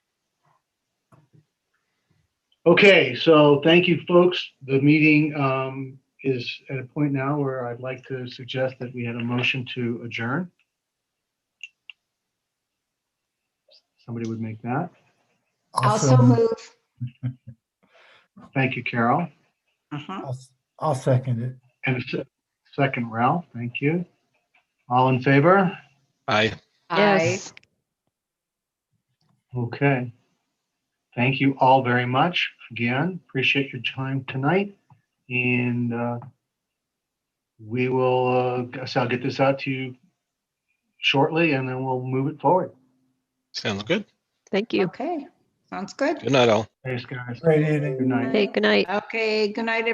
Okay, so thank you, folks. The meeting um, is at a point now where I'd like to suggest that we had a motion to adjourn. Somebody would make that. Also move. Thank you, Carol. Mhm. I'll s- I'll second it. And a se- second, Ralph, thank you. All in favor? Aye. Aye. Yes. Okay. Thank you all very much. Again, appreciate your time tonight. And uh, we will, uh, guess I'll get this out to you shortly and then we'll move it forward. Sounds good. Thank you. Okay, sounds good. Good night, all. Thanks, guys. Great evening. Good night. Hey, good night. Okay, good night,